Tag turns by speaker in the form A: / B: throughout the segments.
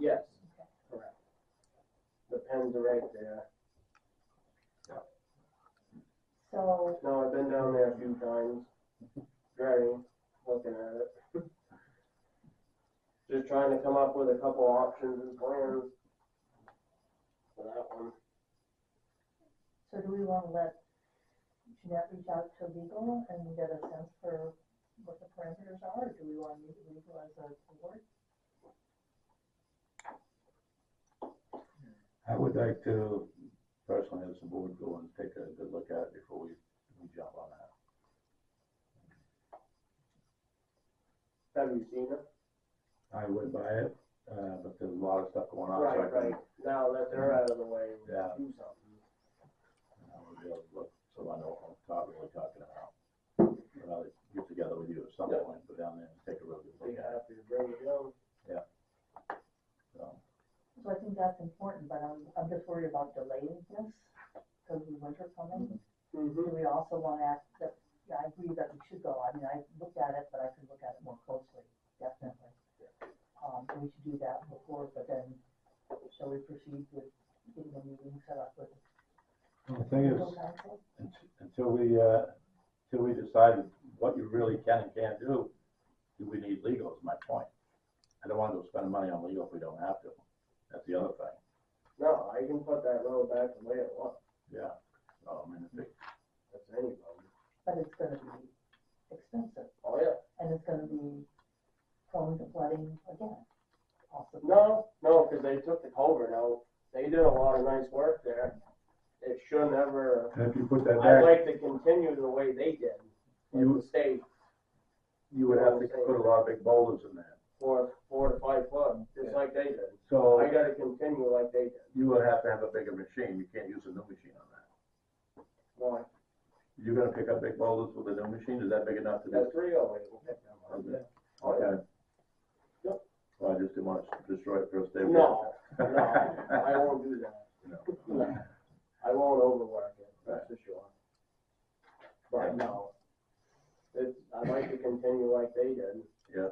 A: Yes,
B: Correct.
A: the pens are right there.
C: So,
A: No, I've been down there a few times, driving, looking at it. Just trying to come up with a couple options and plans. For that one,
C: so do we wanna let Jeanette reach out to legal and get a sense for what the parameters are, or do we wanna meet with legal as a board?
D: I would like to personally have some board go and take a good look at it before we, we jump on that.
A: have you seen it?
D: I would buy it, uh, but there's a lot of stuff going on. so I
A: Right,
D: think
A: right, now that they're out of the way, we
D: Yeah.
A: do something.
D: I would be able to look, so I know what I'm talking, really talking about. But I'll get together with you at some
A: Yeah.
D: point, go down there and take a real good
A: Be
D: look at it,
A: happy to bring it down.
D: so.
C: So I think that's important, but I'm, I'm just worried about delaying this, cause the winter coming, do
A: Mm-hmm.
C: we also wanna ask that, yeah, I agree that we should go, I mean, I looked at it, but I could look at it more closely, definitely. Um, so we should do that before, but then, shall we proceed with getting a meeting set up with
D: The thing is,
C: legal counsel?
D: unt- until we, uh, until we decide what you really can and can't do, do we need legal is my point. I don't want to spend money on legal if we don't have to, that's the other thing,
A: No, I can put that road back the way it was,
D: yeah. So, I mean, if it
A: Oh, that's any problem.
C: but it's gonna be expensive,
A: Oh, yeah.
C: and it's gonna be prone to flooding again, possibly.
A: No, no, because they took the culvert out. They did a lot of nice work there. It should never,
D: And if you put that
A: I'd
D: back,
A: like to continue the way they did.
D: You-
A: Like the state,
D: you would have to put a lot of big boulders in there.
A: four, four to five foot, just like they did. I
D: So
A: gotta continue like they did.
D: you would have to have a bigger machine. You can't use a new machine on that.
A: Why?
D: You're gonna pick up big boulders with a new machine? Is that big enough to do?
A: That's real, we will pick them up.
D: Okay.
A: Oh, yeah.
D: Okay.
A: Yep.
D: Well, I just didn't want to destroy it first day.
A: No, no, I won't do that.
D: No.
A: I won't overwork it, that's for sure. But
D: Yeah.
A: no, it's, I'd like to continue like they did.
D: Yeah.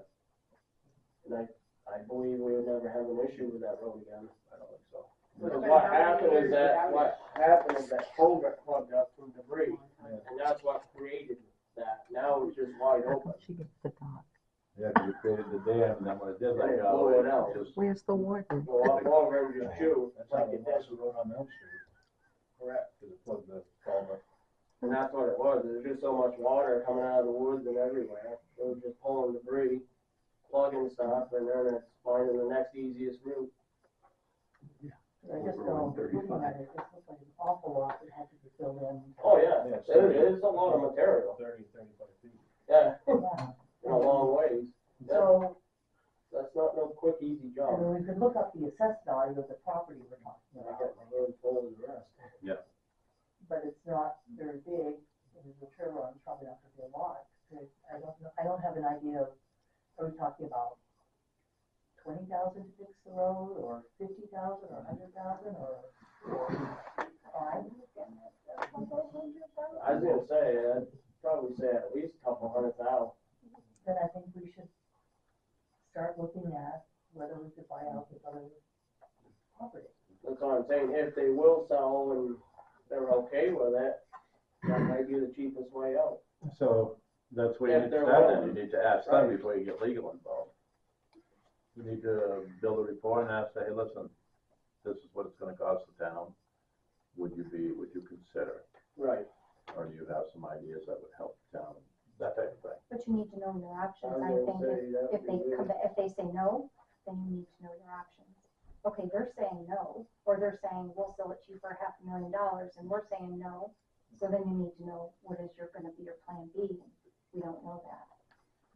A: And I, I believe we would never have an issue with that road again.
D: I don't think so.
A: Because what happened is that, what happened is that culvert plugged up from debris, and that's what created that. Now it's just wide open.
E: She gets the dog.
D: Yeah, because you created the dam and then when it did
A: Yeah,
D: let
A: it
D: go,
A: blew it
D: it
A: out.
D: just.
E: Where's the warden?
A: Go up over and just chew,
F: That's how
A: like
F: the
A: it did,
F: lawsuit wrote on Elm Street,
A: correct.
F: because it plugged the culvert.
A: And that's what it was, there's just so much water coming out of the woods and everywhere. It was just pulling debris, plugging stuff, and then it's finding the next easiest route.
C: I just
D: Overall,
C: don't, looking at it, it looks like an awful lot that had to be filled in,
A: Oh, yeah,
F: Yeah,
A: there it is, a lot of material,
F: Thirty, thirty-five feet.
A: yeah,
C: yeah.
A: in a long ways.
C: So,
A: That's not no quick, easy
C: I
A: job.
C: mean, we could look up the assessed value of the property we're talking
A: And I
C: about,
A: got my hands full of the rest.
C: but it's not very big, and the return on it's probably not gonna be a lot, 'cause I don't know, I don't have an idea of, are we talking about twenty thousand to fix the road, or fifty thousand, or hundred thousand, or, or five?
A: I was gonna say, I'd probably say at least a couple hundred thousand.
C: Then I think we should start looking at whether we could buy out this other property.
A: That's what I'm saying, if they will sell and they're okay with it, that might be the cheapest way out.
D: So that's where
A: If
D: you need to
A: they're
D: start
A: willing.
D: then. You need to ask them
A: Right.
D: before you get legal involved. You need to build a report and ask, hey, listen, this is what it's gonna cost the town. Would you be, would you consider,
A: Right.
D: it? or do you have some ideas that would help the town, that type of thing?
G: But you need to know your
A: I
G: options, I
A: was
G: think,
A: gonna
G: if,
A: say that
G: if they
A: would be
G: come,
A: good.
G: ba- if they say no, then you need to know your options. Okay, they're saying no, or they're saying, we'll sell it to you for half a million dollars, and we're saying no, so then you need to know what is your, gonna be your plan B, we don't know that.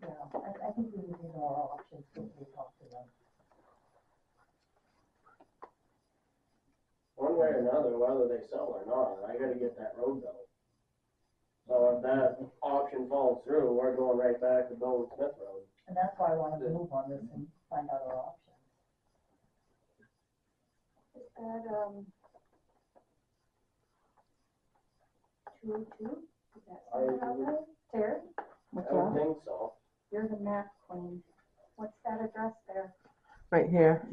C: Yeah, I, I think we would need more options when we talk to them.
A: One way or another, whether they sell or not, I gotta get that road built. So if that option falls through, we're going right back to building Smith Road.
C: And that's why I wanted to move on this and find out our options.
G: Is that, um, two, oh two, is that
A: I
G: sound about
A: would-
G: right? Terry,
A: I don't think so.
G: you're the math queen, what's that address there?
E: Right here.